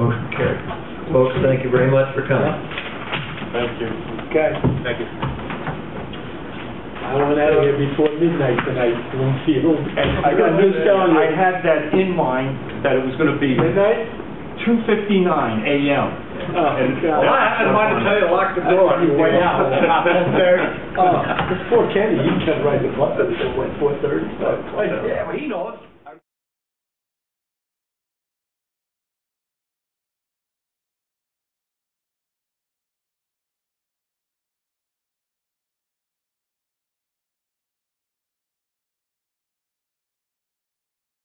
Okay. Folks, thank you very much for coming. Thank you. Okay, Thank you. I went out of here before midnight tonight, Bloomfield. I got news telling I you. had that in mind, that it was gonna be Midnight? two fifty-nine AM. Oh, And- God. Well, I had mine to tell you, lock the door on your way out. Four-thirty. Uh, Oh, it's four candy, you can ride the bus, it's at what, four thirty? Yeah, but he knows.